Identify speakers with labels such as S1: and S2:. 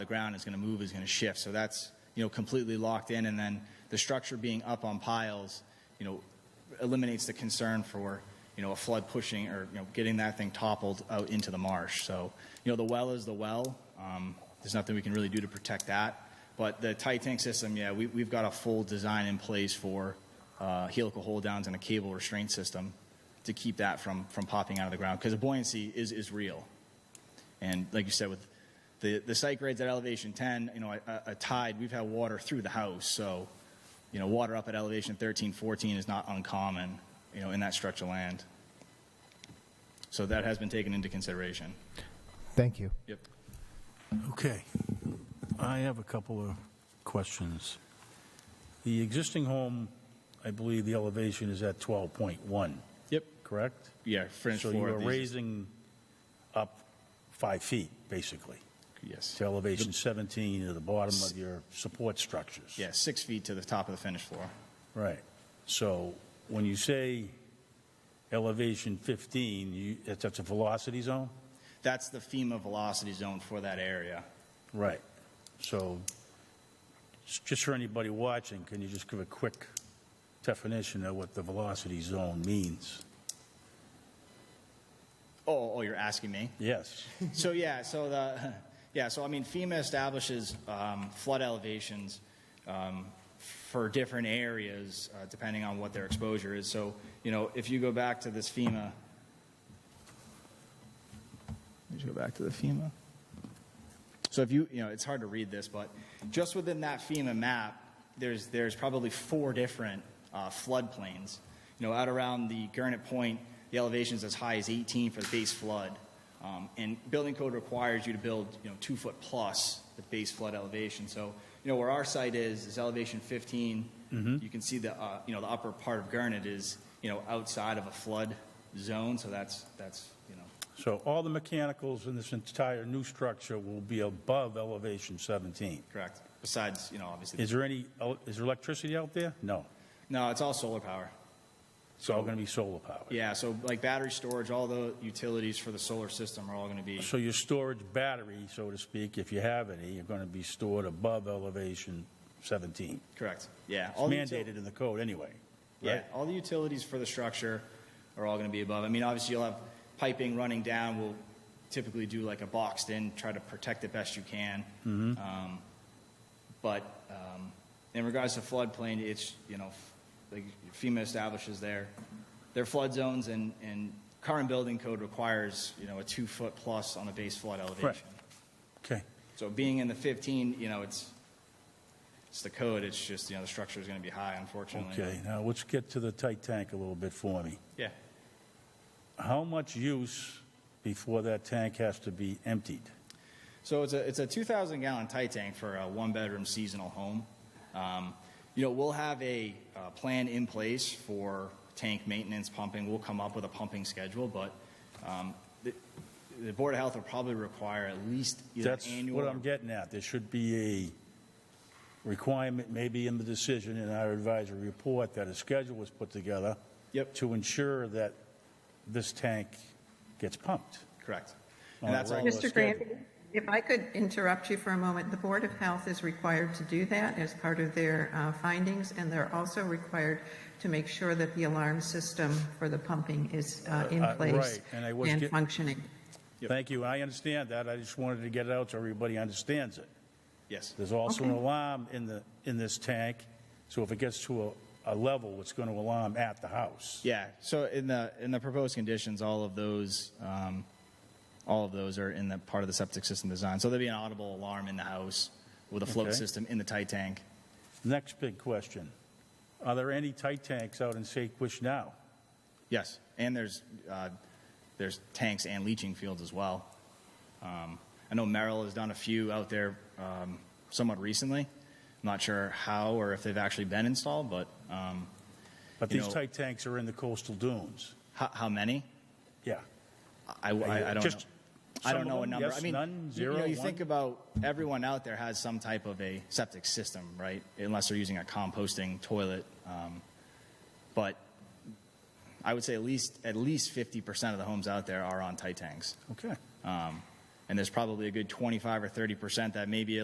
S1: the ground, it's going to move, it's going to shift. So that's, you know, completely locked in. And then the structure being up on piles, you know, eliminates the concern for, you know, a flood pushing or, you know, getting that thing toppled out into the marsh. So, you know, the well is the well. Um, there's nothing we can really do to protect that. But the tight tank system, yeah, we, we've got a full design in place for uh, helical hold downs and a cable restraint system to keep that from, from popping out of the ground because the buoyancy is, is real. And like you said, with the, the site grades at elevation 10, you know, a, a- a tide, we've had water through the house. So, you know, water up at elevation 13, 14 is not uncommon, you know, in that stretch of land. So that has been taken into consideration.
S2: Thank you.
S1: Yep.
S3: Okay. I have a couple of questions. The existing home, I believe the elevation is at 12.1,
S1: Yep.
S3: correct?
S1: Yeah, finished
S3: So you
S1: floor.
S3: are
S1: of these-
S3: raising up five feet, basically,
S1: Yes.
S3: to elevation 17 to the bottom of your support structures.
S1: Yeah, six feet to the top of the finished floor.
S3: Right. So when you say elevation 15, you, that's that's a velocity zone?
S1: That's the FEMA velocity zone for that area.
S3: Right. So, s- just for anybody watching, can you just give a quick definition of what the velocity zone means?
S1: Oh, oh, you're asking me?
S3: Yes.
S1: So yeah, so the yeah, so I mean, FEMA establishes um, flood elevations um, for different areas uh, depending on what their exposure is. So you know, if you go back to this FEMA, let me go back to the FEMA. So if you you know, it's hard to read this, but just within that FEMA map, there's there's probably four different uh, floodplains. You know, out around the Gurnett Point, the elevation is as high as 18 for the base flood. Um, and building code requires you to build, you know, two foot plus the base flood elevation. So, you know, where our site is is elevation 15. You can see the, uh, you know, the upper part of Gurnett is, you know, outside of a flood zone. So that's that's you know,
S3: So all the mechanicals in this entire new structure will be above elevation 17.
S1: correct. Besides, you know, obviously,
S3: Is there any, el- is there electricity out there? No.
S1: no, it's all solar power.
S3: It's all going to be solar powered.
S1: Yeah, so like battery storage, all the utilities for the solar system are all going to be,
S3: So your storage battery, so to speak, if you have any, are going to be stored above elevation 17.
S1: correct, yeah.
S3: It's
S1: all the util-
S3: mandated in the code anyway.
S1: Yeah,
S3: right?
S1: all the utilities for the structure are all going to be above. I mean, obviously, you'll have piping running down, we'll typically do like a boxed in, try to protect it best you can. Um, But um, in regards to floodplain, it's, you know, f- like FEMA establishes their, their flood zones, and, and current building code requires, you know, a two-foot plus on a base flood elevation.
S3: Okay.
S1: So being in the 15, you know, it's, it's the code, it's just, you know, the structure is going to be high, unfortunately.
S3: Okay, now let's get to the tight tank a little bit for me.
S1: Yeah.
S3: How much use before that tank has to be emptied?
S1: So it's a, it's a 2,000 gallon tight tank for a one bedroom seasonal home. Um, you know, we'll have a uh, plan in place for tank maintenance pumping. We'll come up with a pumping schedule, but um, the, the Board of Health will probably require at least either
S3: That's
S1: annual.
S3: what I'm getting at. There should be a requirement, maybe in the decision in our advisory report, that a schedule was put together
S1: Yep.
S3: to ensure that this tank gets pumped.
S1: Correct.
S3: On
S1: And
S3: a
S1: that's all.
S3: regular
S4: Mr.
S3: schedule.
S4: Grant, if I could interrupt you for a moment, the Board of Health is required to do that as part of their uh, findings, and they're also required to make sure that the alarm system for the pumping is uh, in
S3: Uh, uh,
S4: place
S3: right, and I was
S4: and
S3: get-
S4: functioning.
S3: Thank you. I understand that. I just wanted to get it out so everybody understands it.
S1: Yes.
S3: There's also an alarm in the, in this tank, so if it gets to a, a level, it's going to alarm at the house.
S1: Yeah. So in the in the proposed conditions, all of those um, all of those are in the part of the septic system design. So there'll be an audible alarm in the house with a float
S3: Okay.
S1: system in the tight tank.
S3: Next big question. Are there any tight tanks out in Saquish now?
S1: Yes, and there's uh, there's tanks and leaching fields as well. Um, I know Merrill has done a few out there um, somewhat recently. I'm not sure how or if they've actually been installed, but um,
S3: But
S1: You
S3: these
S1: know-
S3: tight tanks are in the coastal dunes.
S1: how, how many?
S3: Yeah.
S1: I, I, I don't
S3: Just
S1: know. I don't
S3: some
S1: know
S3: of
S1: a
S3: them?
S1: number.
S3: Yes,
S1: I mean,
S3: none,
S1: you- you, know,
S3: zero,
S1: you
S3: one?
S1: think about everyone out there has some type of a septic system, right? Unless they're using a composting toilet. Um, but I would say at least at least 50% of the homes out there are on tight tanks.
S3: Okay.
S1: Um, and there's probably a good 25 or 30 percent that may be a